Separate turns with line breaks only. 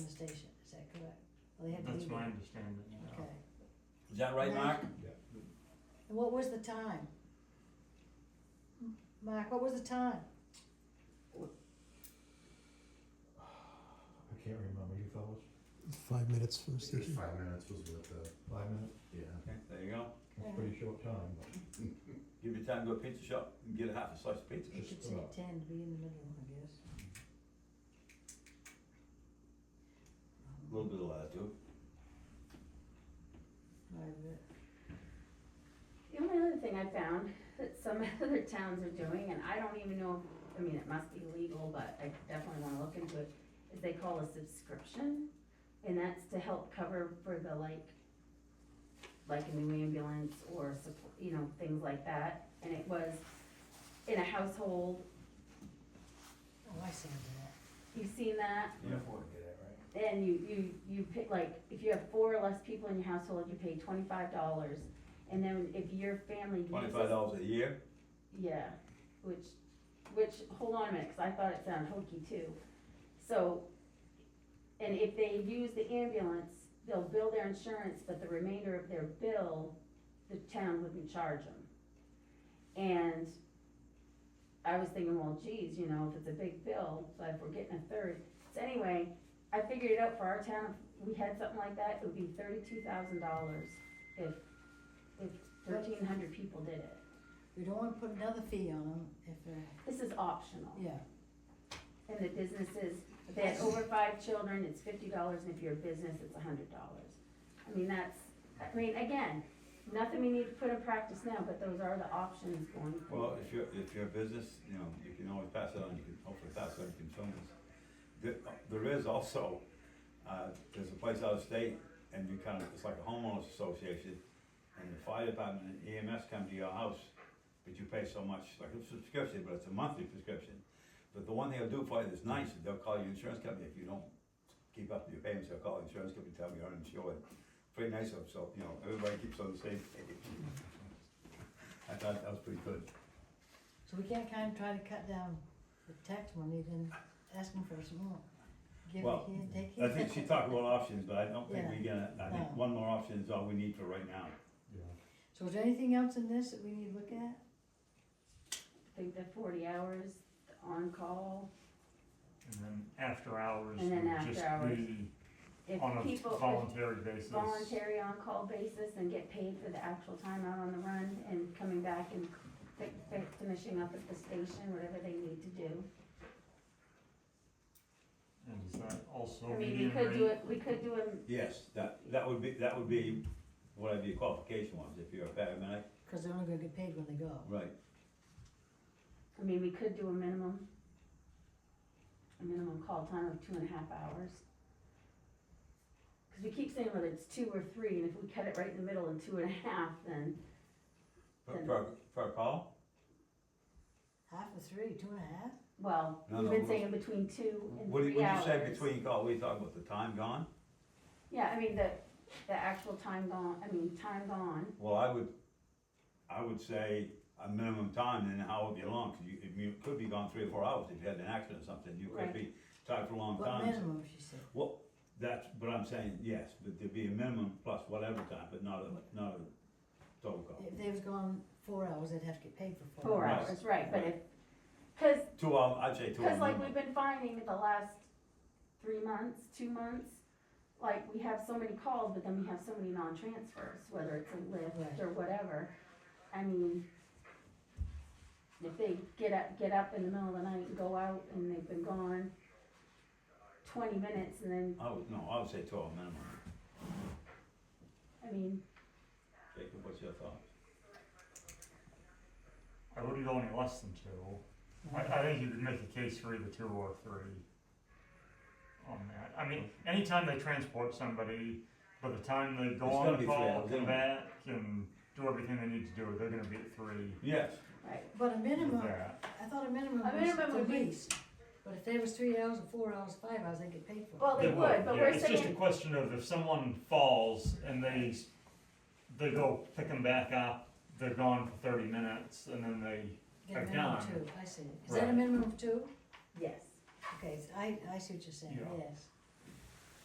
they had to
That's
leave.
my understanding, yeah.
Okay,
Is that right, Mark?
and what was the time? M- Mark, what was the time?
I can't remember, you fellas,
Five minutes from the
It was
station.
five minutes was what the,
five minutes,
yeah.
Okay, there you go.
that's a pretty short time, but
Give your time, go to a pizza shop and get a half a slice of pizza.
You
Just
should say
about.
ten to be in the middle, I guess.
A little bit of latitude.
Private.
The only other thing I found that some other towns are doing, and I don't even know, if- I mean, it must be legal, but I definitely wanna look into it, is they call a subscription, and that's to help cover for the like, like a new ambulance or support, you know, things like that, and it was in a household,
Oh, I see that.
you've seen that?
Yeah.
And you, you, you pay, like, if you have four or less people in your household, you pay twenty-five dollars, and then if your family uses.
Twenty-five dollars a year?
Yeah, which, which, hold on a minute, cause I thought it sounded hokey too. So, and if they use the ambulance, they'll bill their insurance, but the remainder of their bill, the town wouldn't charge them. And I was thinking, well, geez, you know, if it's a big bill, but if we're getting a third, so anyway, I figured it out for our town, if we had something like that, it would be thirty-two thousand dollars if, if thirteen hundred people did it.
We don't wanna put another fee on them if they're,
This is optional,
yeah.
and the businesses, if they had over five children, it's fifty dollars, and if you're a business, it's hundred dollars. I mean, that's, I mean, again, nothing we need to put in practice now, but those are the options going
Well,
forward.
if you're, if you're a business, you know, you can always pass it on, you can hopefully pass it on to consumers. There, there is also, uh, there's a place out of state, and you kind of, it's like a homeowners association, and the fire department and EMS come to your house, but you pay so much, like a subscription, but it's a monthly subscription. But the one thing they'll do for you that's nice, is they'll call your insurance company, if you don't keep up with your payments, they'll call the insurance company, tell them you're uninsured. Pretty nice of, so, you know, everybody keeps on the same page. I thought that was pretty good.
So we can't kind of try to cut down the tax money, then ask them for some more. Give it
Well,
here, take
I
it.
think she talked about options, but I don't think we gonna, I
Yeah.
think one more option is all we need for right now.
yeah.
So is there anything else in this that we need to look at?
I think the forty hours, the on-call,
And then after hours
And then
would
after
just
hours.
be
if
on
people,
a
if
voluntary basis.
voluntary on-call basis and get paid for the actual time out on the run and coming back and fi- fi- finishing up at the station, whatever they need to do.
And is that also
I mean, we
median
could do
rate?
it, we could do a
Yes, that, that would be, that would be whatever your qualification was, if you're a paramedic.
Cause they're only gonna get paid when they go.
Right.
I mean, we could do a minimum, a minimum call time of two and a half hours. Cause we keep saying whether it's two or three, and if we cut it right in the middle and two and a half, then,
Per, per, per call?
Half of three, two and a half?
well,
No,
we've
no,
been
we-
saying between two and
What do you,
three
when you
hours.
say between call, we talk about the time gone?
Yeah, I mean, the, the actual time gone, I mean, time gone,
Well, I would, I would say a minimum time, then how would be long, 'cause you, if you could be gone three or four hours if you had an accident or something, you could
Right.
be tied for a long
What
time.
minimum, she said.
Well, that's, but I'm saying, yes, but there'd be a minimum plus whatever time, but not a, not a total call.
If they was gone four hours, they'd have to get paid for four
four
Right.
hours.
hours, right, but if, cause
Two hour, I'd say two hour
Cause like we've
minimum.
been finding the last three months, two months, like we have so many calls, but then we have so many non-transfers, whether it's a
Right.
lift or whatever. I mean, if they get up, get up in the middle of the night and go out and they've been gone twenty minutes and then,
I would, no, I would say two hour minimum.
I mean,
Jacob, what's your thought?
I wouldn't go any less than two. I, I think you could make a case for either two or three on that. I mean, anytime they transport somebody, by the time they go
It's
on
gonna
the
be three
call,
hours
come
anyway.
back, and do everything they need to do, they're gonna be at three
Yes,
right,
But a
with
minimum,
that.
I thought a minimum
A
was
minimum would
the
be-
least. But if they was three hours or four hours, five hours, they'd get paid for it.
Well, they would, but
yeah.
we're
It's just a
saying-
question of if someone falls and they, s- they go pick them back up, they're gone for thirty minutes, and then they
Get a
I've
minimum of
done.
two, I see. Is that a
Right.
minimum of two?
yes.
Okay, so I, I see what you're saying,
Yeah.
yes.